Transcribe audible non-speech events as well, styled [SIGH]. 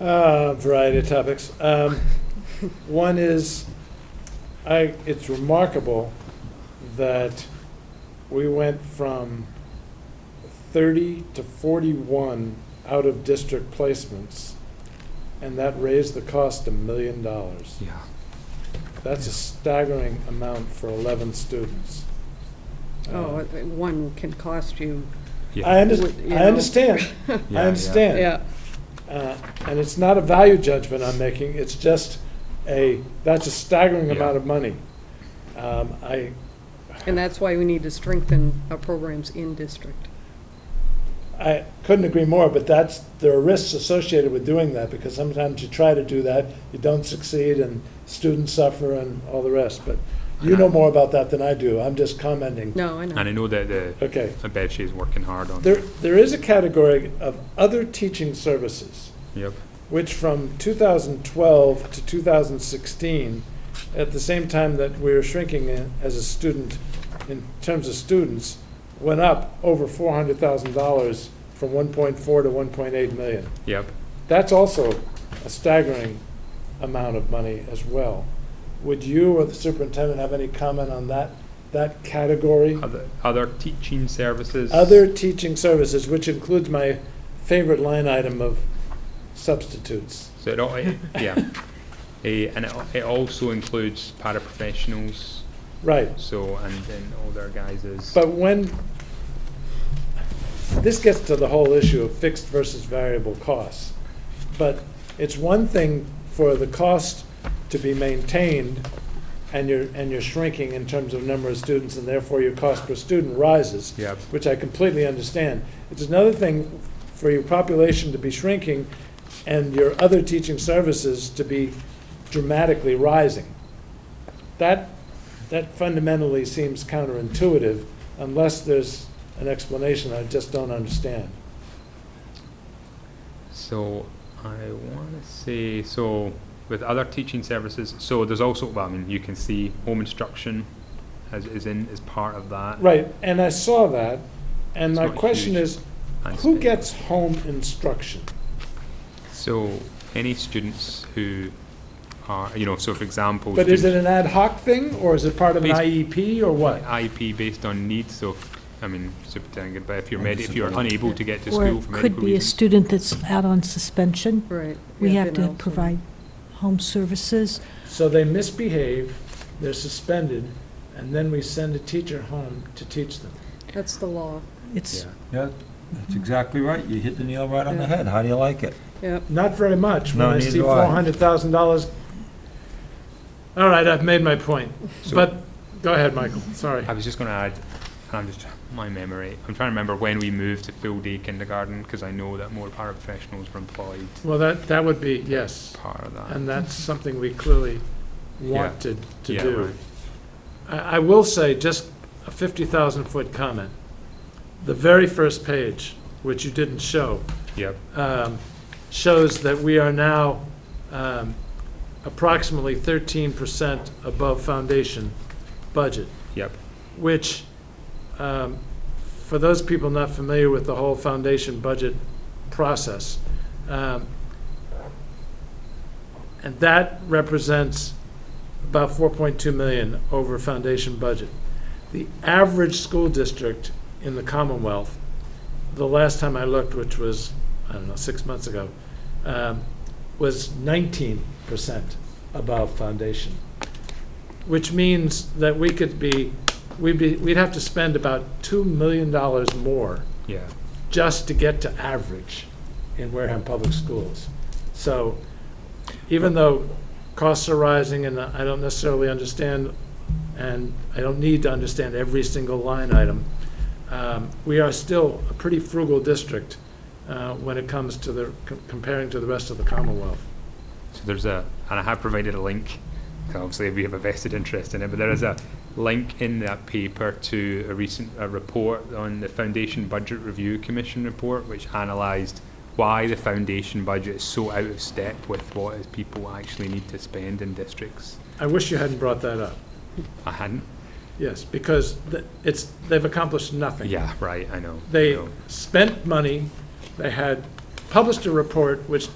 Uh, Variety of topics. Um, One is, I, it's remarkable that we went from 30 to 41 out-of-district placements, and that raised the cost a million dollars. Yeah. That's a staggering amount for 11 students. Oh, Uh, uh, one can cost you, I under, Would- you I know. [LAUGHS] understand, yeah, I understand. yeah, Uh, And it's not a value judgment I'm making, it's just a, that's a staggering Yeah. amount of money. Um, I, and that's why we need to strengthen our programs in district. I couldn't agree more, but that's, there are risks associated with doing that, because sometimes you try to do that, you don't succeed, and students suffer and all the rest, but you know more about that than I do, I'm just commenting. No, I know. And I know that the, Okay, I bet she's working hard on there, there is a category of other teaching services. Yep. which from 2012 to 2016, at the same time that we were shrinking in- as a student, in terms of students, went up over $400,000 from 1.4 to 1.8 million. Yep. That's also a staggering amount of money as well. Would you or the superintendent have any comment on that, that category? Other, other teaching services. Other teaching services, which includes my favorite line item of substitutes. So it all, it- yeah. Eh, and it, al- it also includes paraprofessionals, Right. so, and then all their guys is. But when, this gets to the whole issue of fixed versus variable costs. But it's one thing for the cost to be maintained and you're, and you're shrinking in terms of number of students and therefore your cost per student rises, Yep, which I completely understand. It's another thing for your population to be shrinking and your other teaching services to be dramatically rising. That, that fundamentally seems counterintuitive unless there's an explanation I just don't understand. so I wanna say, so with other teaching services, so there's also, well, I mean, you can see home instruction as, is in, is part of that. Right, and I saw that, and It's my not question huge. is, and who spend- gets home instruction? So any students who are, you know, so for example. But is it students- an ad hoc thing, or is it part of an Basi- IEP, or what? IEP based on need, so, if- I mean, superintendent, but if you're med, if you're Disability. unable to get to Or school it for could medical be a reasons. student that's out on suspension. Right. We yeah, then have to also- provide home services. So they misbehave, they're suspended, and then we send a teacher home to teach them. That's the law, It's, Yeah, that's exactly right. You hit the nail right on the head. How do you like it? yep. Not very much, when No, I neither see do I. four hundred thousand dollars. All right, I've made my point, So- but, go ahead, Michael, sorry. I was just going to add, and I'm just my memory. I'm trying to remember when we moved to full day kindergarten because I know that more paraprofessionals were employed. Well, that, that would be, yes, Part of that. and that's something we clearly wanted to yeah, do. right. I, I will say, just a fifty thousand foot comment, the very first page, which you didn't show, Yep. um, shows that we are now um, approximately 13% above foundation budget. Yep. Which, um, for those people not familiar with the whole foundation budget process, um, and that represents about 4.2 million over foundation budget. The average school district in the Commonwealth, the last time I looked, which was I don't know, six months ago, um, was nineteen percent above foundation, which means that we could be, we'd be, we'd have to spend about two million dollars more Yeah. just to get to average in Wareham Public Schools. So even though costs are rising and I don't necessarily understand, and I don't need to understand every single line item, um, we are still a pretty frugal district uh, when it comes to the, com- comparing to the rest of the Commonwealth. So there's a, and I have provided a link. 'cause Obviously, we have a vested interest in it, but there is a link in that paper to a recent a report on the Foundation Budget Review Commission report, which analysed why the foundation budget is so out of step with what is people actually need to spend in districts. I wish you hadn't brought that up, I hadn't yes, because th- it's, they've accomplished nothing. Yeah, right, I know. I They know. spent money, they had published a report which